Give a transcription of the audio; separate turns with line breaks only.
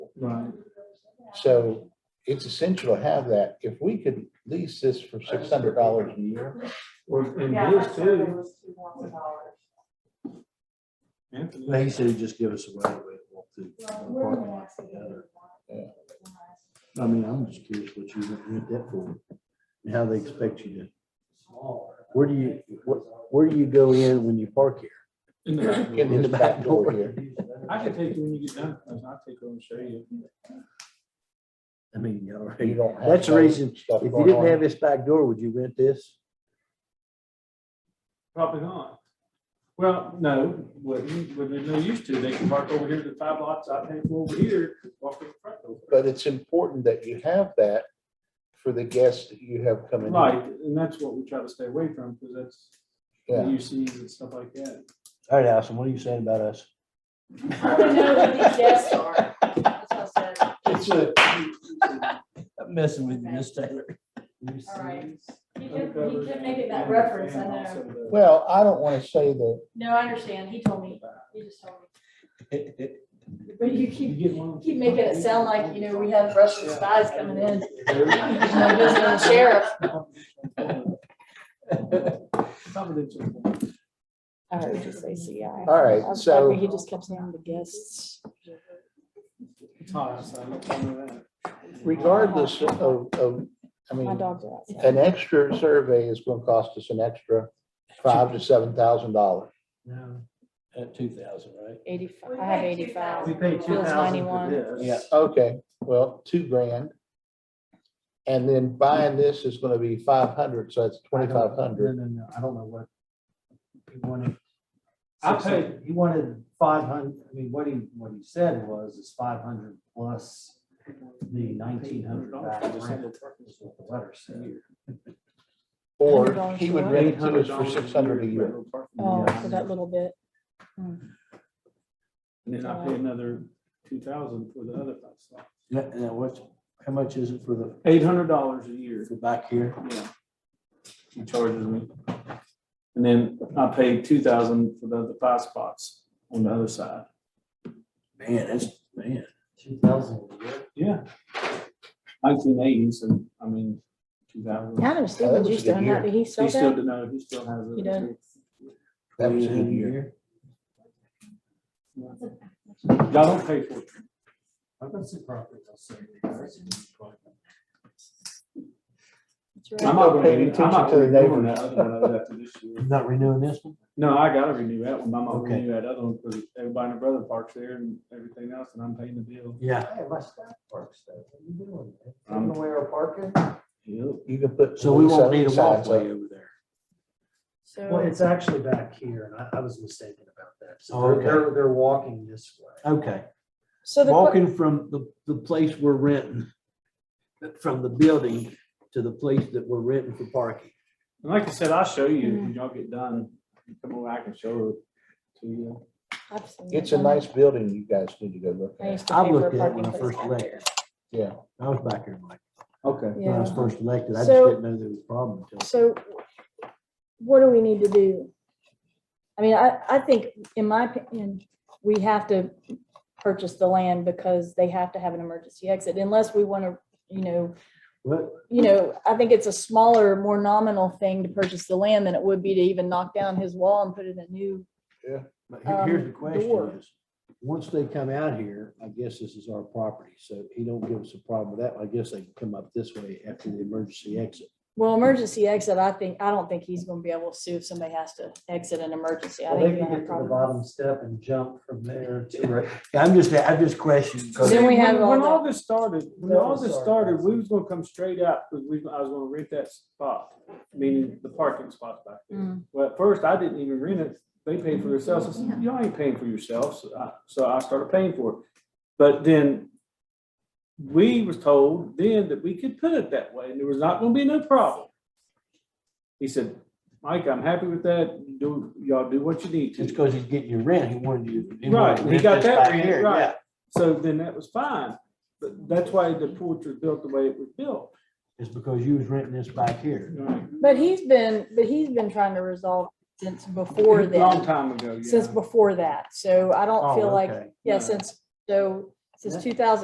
Right.
So it's essential to have that. If we could lease this for six hundred dollars a year,
Well, and
Yeah,
his
my survey
too.
was two thousand dollars.
Anthony.
They said he'd just give us a right away to walk through. the parking lot together. I mean, I'm just curious what you would need that for, and how they expect you to. Where do you, what, where do you go in when you park here?
In the back.
in this back door here,
I can take you when you get done, I'll take over and show you.
I mean, you know,
you don't have.
That's the reason,
stuff
if you
going
didn't
on.
have this back door, would you rent this?
Probably not. Well, no, wouldn't, would there's no use to, they can park over here to five lots, I can go over here, walk in front door.
But it's important that you have that for the guests that you have coming. in.
Right, and that's what we try to stay away from, because that's
Yeah.
UCs and stuff like that.
All right, Allison, what are you saying about us?
I don't know what these guests are. That's what I said.
It's a,
I'm messing
with you, Miss
Taylor.
All right. He could, he could make it that reference, I know.
well, I don't want to say that,
No, I understand. He told me. He just told me. But you keep, keep making it sound like, you know, we have Russian spies coming in. My visiting sheriff.
I heard you say CI.
all right, so.
He just kept saying the guests.
regardless of, of, I
My
mean,
dogs are outside.
an extra survey is gonna cost us an extra five to seven thousand dollars.
At two thousand, right?
Eighty-five, I have eighty-five.
We pay two
Bill's
thousand for
91.
this.
Yeah.
Okay, well, two grand. And then buying this is gonna be five hundred, so that's twenty-five hundred.
No, no, no, I don't know what. He wanted.
I paid-
He wanted five hundred, I mean, what he, what he said was it's five hundred plus the nineteen hundred back rent. is what the letter said.
Or he would rent it to us for
$800
six hundred a year.
Oh,
Yeah.
for that little bit.
And then I pay another two thousand for the other five.
Now, now what's, how much is it for the,
Eight hundred dollars a year,
for back here?
yeah. He charges me. And then I paid two thousand for the other five spots on the other side.
Man, that's, man.
Two thousand.
Yeah. Nineteen eighty, so I mean, two thousand.
I don't know,
Oh, that
Stephen
was a
used
good
to own
year.
that, did he sell
He still,
that?
did- no, he still has it.
He does.
That was a
$2,000
good year.
Y'all don't pay for it.
I've got some property. I'll sell you.
That's right.
I'm not
Pay
paying
attention
attention
to
to
the
the neighbor.
neighbors.
Not renewing this one?
No, I gotta renew that one. My mom
Okay.
renewed that other one because everybody and their brother parks there and everything else and I'm paying the bill.
Yeah.
Hey, my staff parks there. What are you doing? man?
Um,
Taking away our parking?
You can put.
So we won't need a
some signs
walkway
up.
over there.
So,
Well, it's actually back here and I, I was mistaken about that.
Oh,
So
okay.
they're, they're walking this way.
Okay,
so the, que-
walking from the, the place we're renting, from the building to the place that we're renting for parking.
And like I said, I'll show you when y'all get done. Come over, I can show it to you.
I've seen that
It's a
one.
nice building. You guys need to go look
I
at.
used to
I
pay for
looked
a
at it
parking
when I
place
first
back
left.
there.
Yeah.
I was back here, Mike,
Okay.
when I was
Yeah.
first elected. I just
So-
didn't know there was a problem until.
So what do we need to do? I mean, I, I think, in my opinion, we have to purchase the land because they have to have an emergency exit unless we want to, you know,
What,
you know, I think it's a smaller, more nominal thing to purchase the land than it would be to even knock down his wall and put in a new.
but here- here's
Um,
the question
door.
is, once they come out here, I guess this is our property, so he don't give us a problem with that. I guess they can come up this way after the emergency exit.
Well, emergency exit, I think, I don't think he's gonna be able to sue if somebody has to exit an emergency. I
Well,
think
they
you're
can
gonna
get
have
to the
problems.
bottom step and jump from there to right
Yeah, I'm just, I'm just questioning. 'cause-
Then we have
When when
all
all this started, when
No,
all this
sorry.
started, we was gonna come straight out, because we, I was gonna rent that spot, meaning the parking spot back there.
Mm.
Well, at first, I didn't even rent it, they paid for themselves, I said, y'all ain't paying for yourselves, So I- so I started paying for it. But then, we was told then that we could put it that way, and there was not gonna be no problem. He said, Mike, I'm happy with that, do, y'all do what you need to.
Just because he's getting your rent, he wanted you. he wanted
Right,
to
he
rent
got
this
that
back
rent,
here,
right.
yeah.
So then that was fine, but that's why the porch was built the way it was built.
is because you was renting this back here.
But he's been, but he's been trying to resolve since before then.
Long time ago, yeah.
since before that. So I don't
Oh,
feel like,
okay.
yeah,
No.
since, so,
Yeah.
since two thousand